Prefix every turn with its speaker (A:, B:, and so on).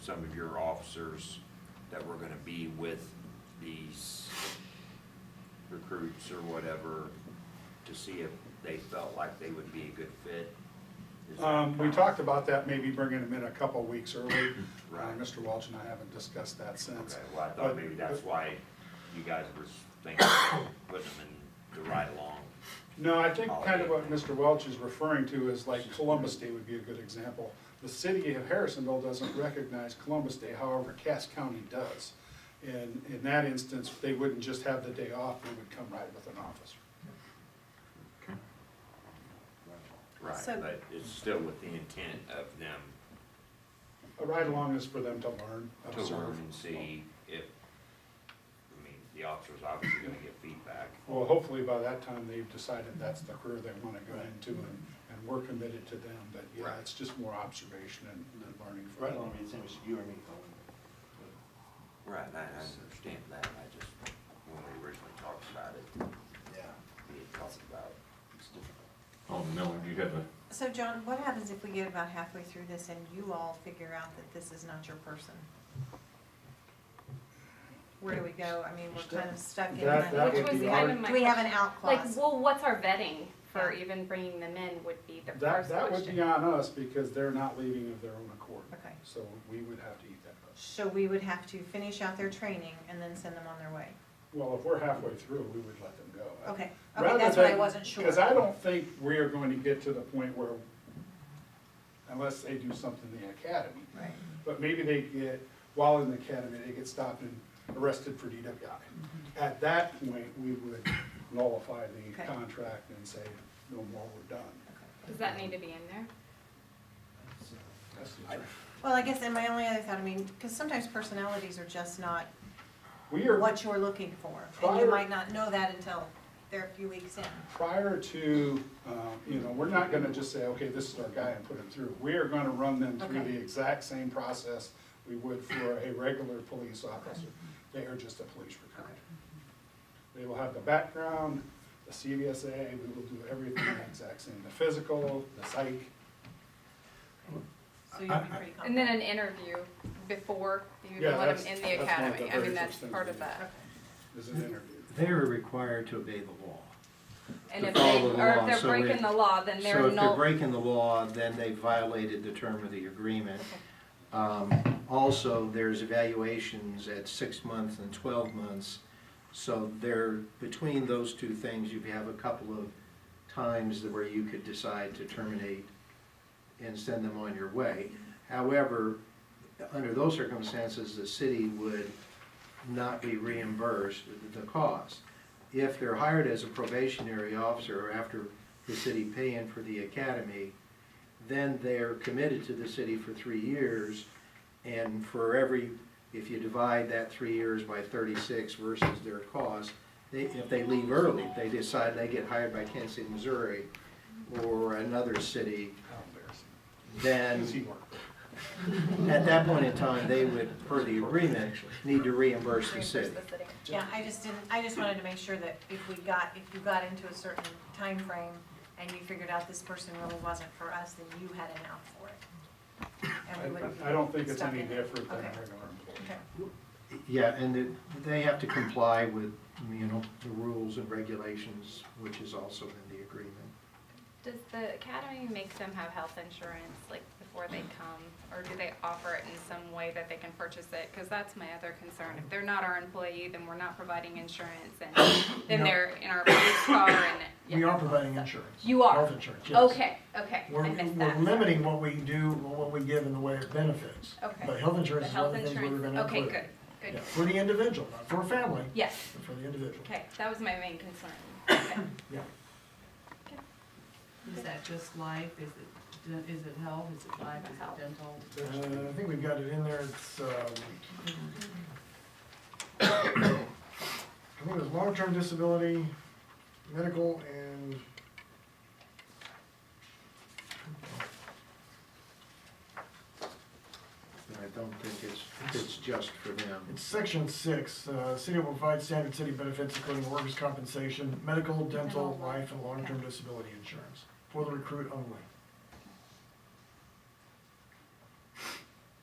A: some of your officers that were gonna be with these recruits or whatever, to see if they felt like they would be a good fit? Is that-
B: Um, we talked about that, maybe bringing them in a couple of weeks early. Uh,
A: Right.
B: Mr. Welch and I haven't discussed that since.
A: Okay, well, I thought
B: But-
A: maybe that's why you guys were thinking of putting them in the ride along.
B: No, I think kind of what Mr. Welch is referring to is like Columbus Day would be a good example. The city of Harrisonville doesn't recognize Columbus Day, however, Cass County does. And in that instance, they wouldn't just have the day off, they would come right with an officer.
A: Right,
C: So-
A: but it's still with the intent of them
B: A ride-along is for them to learn,
A: to learn
B: observe.
A: and see if, I mean, the officer's obviously gonna get feedback.
B: Well, hopefully by that time, they've decided that's the career they want to go into, and, and we're committed to them, but yeah,
A: Right.
B: it's just more observation and and learning. for
D: Right
B: them.
D: along, it's almost you or me going.
A: Right, I, I understand that, I just, when we originally talked about it,
D: Yeah,
A: we had talked about.
D: it's difficult.
E: Oh, no, you have a,
C: So John, what happens if we get about halfway through this and you all figure out that this is not your person? Where do we go? I mean, we're kind of stuck in
B: That- that
C: that.
F: Which
B: would
F: was
B: be
F: kind
B: hard.
F: of my.
C: Do we have an out
F: Like,
C: clause?
F: well, what's our vetting for even bringing them in would be the
B: That,
F: first
B: that would be
F: question.
B: on us because they're not leaving of their own accord.
C: Okay.
B: So we would have to eat that cost.
C: So we would have to finish out their training and then send them on their way?
B: Well, if we're halfway through, we would let them go.
C: Okay, okay, that's what I wasn't sure.
B: Because I don't think we are going to get to the point where, unless they do something in the academy.
C: Right.
B: But maybe they get, while in the academy, they get stopped and arrested for DWI. At that point, we would nullify the
C: Mm-hmm. Okay.
B: contract and say, no more, we're done.
F: Does that need to be in there?
B: So That's the
A: I-
B: truth.
C: Well, I guess, and my only other thought, I mean, because sometimes personalities are just not
B: We are
C: what you're looking for. And you
B: Prior-
C: might not know that until they're a few weeks in.
B: prior to, uh, you know, we're not gonna just say, okay, this is our guy and put him through. We are gonna run them through
C: Okay.
B: the exact same process we would for a regular police officer. They are just a police recruit. They will have the background, the CVSA, we will do everything the exact same, the physical, the psych.
C: So you'll be pretty confident.
F: And then an interview before you
B: Yeah,
F: even let
B: that's-
F: them in
B: that's
F: the
B: one of the
F: academy. I
B: very
F: mean, that's
B: first things
F: part
B: we
F: of
B: do.
F: that.
B: This is an interview.
G: They are required to obey the law.
F: And
G: To
F: if they,
G: follow the
F: or if
G: law,
F: they're
G: so we-
F: breaking the law, then
G: So
F: they're
G: if they're
F: null.
G: breaking the law, then they violated the term of the agreement. Um, Also, there's evaluations at six months and 12 months. So there, between those two things, you have a couple of times where you could decide to terminate and send them on your way. However, under those circumstances, the city would not be reimbursed the cost. If they're hired as a probationary officer or after the city paying for the academy, then they're committed to the city for three years. And for every, if you divide that three years by thirty-six versus their cost, they, if they leave early, if they decide they get hired by Kansas City, Missouri or another city,
B: How embarrassing.
G: then
B: Does he work?
G: at that point in time, they would, per the agreement, need to reimburse the
F: reimburse
G: city.
F: the city.
C: Yeah, I just didn't, I just wanted to make sure that if we got, if you got into a certain time frame and you figured out this person really wasn't for us, then you had an out for it. And we wouldn't be
B: I I don't think it's
C: stuck
B: any
C: in it.
B: different than a
C: Okay,
B: regular employee.
C: okay.
G: Yeah, and it- they have to comply with, you know, the rules and regulations, which is also in the agreement.
F: Does the academy make them have health insurance, like, before they come? Or do they offer it in some way that they can purchase it? Because that's my other concern. If they're not our employee, then we're not providing insurance, and then
H: No.
F: they're in our police car, and.
H: We
F: yeah.
H: are providing insurance.
F: You are?
H: Health insurance, yes.
F: Okay, okay,
H: We're,
F: I missed
H: we're
F: that.
H: limiting what we do, what we give in the way of benefits.
F: Okay.
H: But health
F: The
H: insurance is one of
F: health
H: the things we were
F: insurance,
H: gonna
F: okay,
H: include.
F: good,
H: Yeah,
F: good.
H: For the individual, not for a family,
F: Yes,
H: but for the individual.
F: okay, that was my main concern. Okay.
H: Yeah.
I: Is that just life? Is it, den- is it health? Is it life? Is it dental?
H: Uh, I think we've got it in there, it's, um, I think it was long-term disability, medical, and
G: And I don't think it's, it's just for them.
H: It's section six, uh, city will provide standard city benefits including workers' compensation, medical, dental, life, and long-term disability insurance for the recruit only.